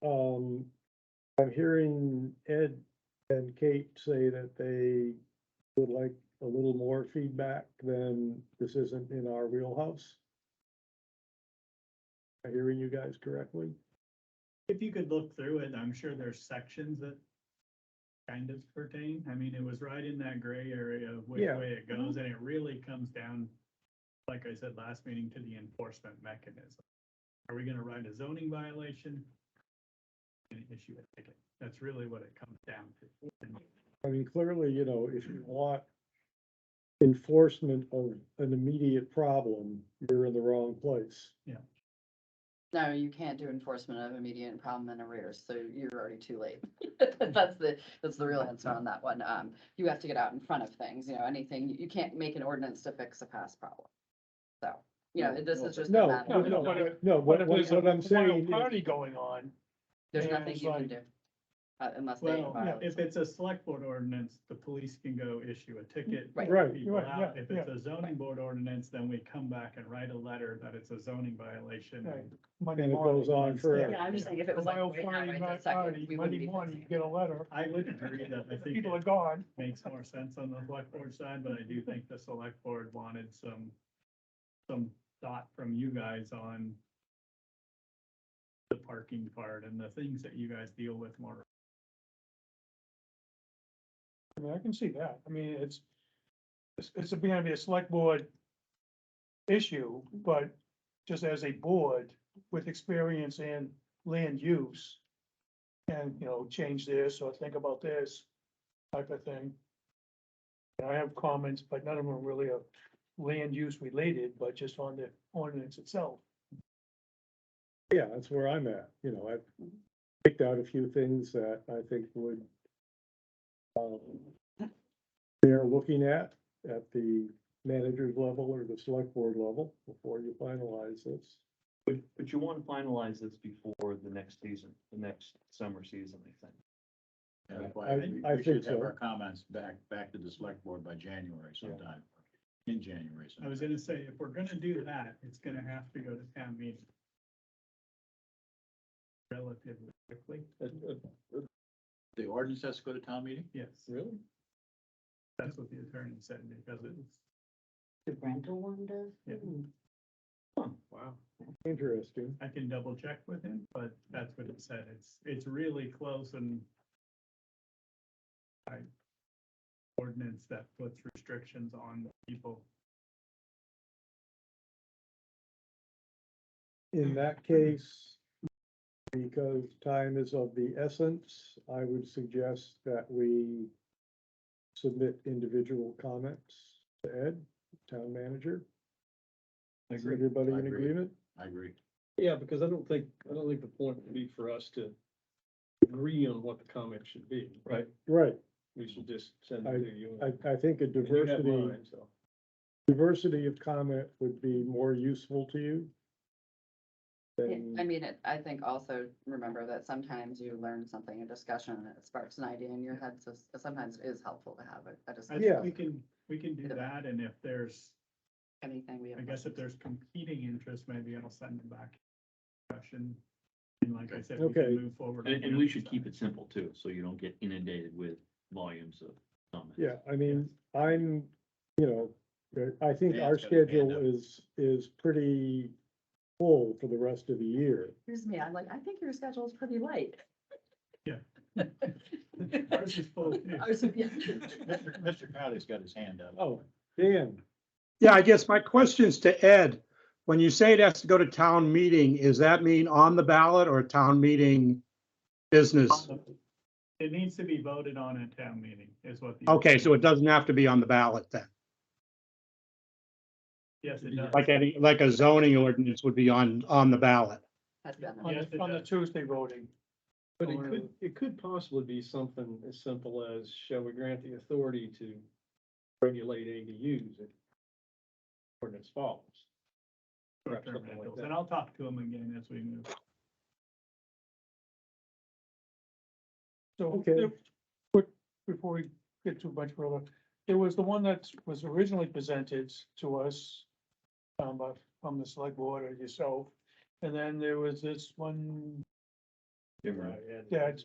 Um, I'm hearing Ed and Kate say that they would like a little more feedback than this isn't in our wheelhouse. Am I hearing you guys correctly? If you could look through it, I'm sure there's sections that kind of pertain. I mean, it was right in that gray area of which Yeah. way it Mm-hmm. goes, and it really comes down, like I said last meeting, to the enforcement mechanism. Are we gonna write a zoning violation? An issue a ticket. That's really what it comes down to. I mean, clearly, you know, if you want enforcement of an immediate problem, you're in the wrong place. No, you can't do enforcement of immediate problem and arrears, so you're already too late. That's the, that's the real answer on that one. Um, you have to get out in front of things, you know, anything, you- you can't make an ordinance to fix a past problem. So, you know, this is just a No, matter no, of, no, but if- no, But what, if what there's a what I'm wild saying, is- party going on, there's yeah, nothing it's you can like- do. uh, Unless they. Well, violate if it's a select board ordinance, the police can go issue a ticket. Right. Right, people right, out. yeah, If it's a zoning board ordinance, then we come back and write a letter that it's a zoning violation. Right. and- Monday And it morning. goes on forever. Yeah, I'm just saying if it A was like wild right now, party, right night this second, party, we wouldn't Monday be morning, fixing you get a letter, I would agree that I think people are it gone. makes more sense on the select board side, but I do think the select board wanted some, some thought from you guys on the parking part and the things that you guys deal with more. I mean, I can see that. I mean, it's, it's, it's gonna be a select board issue, but just as a board with experience in land use and, you know, change this or think about this type of thing. And I have comments, but none of them are really are land use related, but just on the ordinance itself. yeah, that's where I'm at, you know, I've picked out a few things that I think would um, they're looking at, at the manager's level or the select board level before you finalize this. But, but you want to finalize this before the next season, the next summer season, I think. Yeah, that's I- why we- I we should think have so. our comments back, back to the select board by January sometime, in January. I was sometime. gonna say, if we're gonna do that, it's gonna have to go to town meeting relatively quickly, The ordinance has to go to town meeting? yes. Really? That's what the attorney said, because it's, The rental one does? Yeah. Wow. Interesting. I can double check with him, but that's what it said. It's, it's really close and I ordinance that puts restrictions on people. In that case, because time is of the essence, I would suggest that we submit individual comments to Ed, town manager. I Is agree. everybody I in agree. agreement? I agree. Yeah, because I don't think, I don't think the point would be for us to agree on what the comment should be, right? Right, We should just send it to you. I, I think a and you have diversity, mine, so. diversity of comment would be more useful to you. Yeah, than- I mean, it- I think also remember that sometimes you learn something in discussion and it sparks an idea in your head, so s- sometimes it is helpful to have a, a I discussion. Yeah. think we can, we can do that. And if there's, Anything we have. I guess if there's competing interest, maybe I'll send them back. Question. And like I said, we Okay. can move forward. on And, the and we other should keep side. it simple too, so you don't get inundated with volumes of comments. Yeah, I mean, I'm, you know, uh, I think our Dan's got his hand schedule up. is, is pretty full for the rest of the year. Excuse me, I'm like, I think your schedule is pretty light. Yeah. Ours I is full, too. was- yeah. Mr. Mr. Crowley's got his hand up. Oh, Dan, Yeah, I guess my question's to Ed. When you say it has to go to town meeting, is that mean on the ballot or town meeting business? It needs to be voted on at town meeting is what. the- Okay, so it doesn't have to be on the ballot then, Yes, it does. like any, like a zoning ordinance would be on, on the ballot. Has been a- On Yes, it the, on the does. Tuesday voting. But it Or- could, it could possibly be something as simple as, shall we grant the authority to regulate ADUs if ordinance follows? Perhaps short-term something like rentals, that. And I'll talk to him again as we move. So, Okay. there- quick, before we get too much further, there was the one that was originally presented to us um, by- from the select board or yourself, and then there was this one, Different. Uh, yeah, it's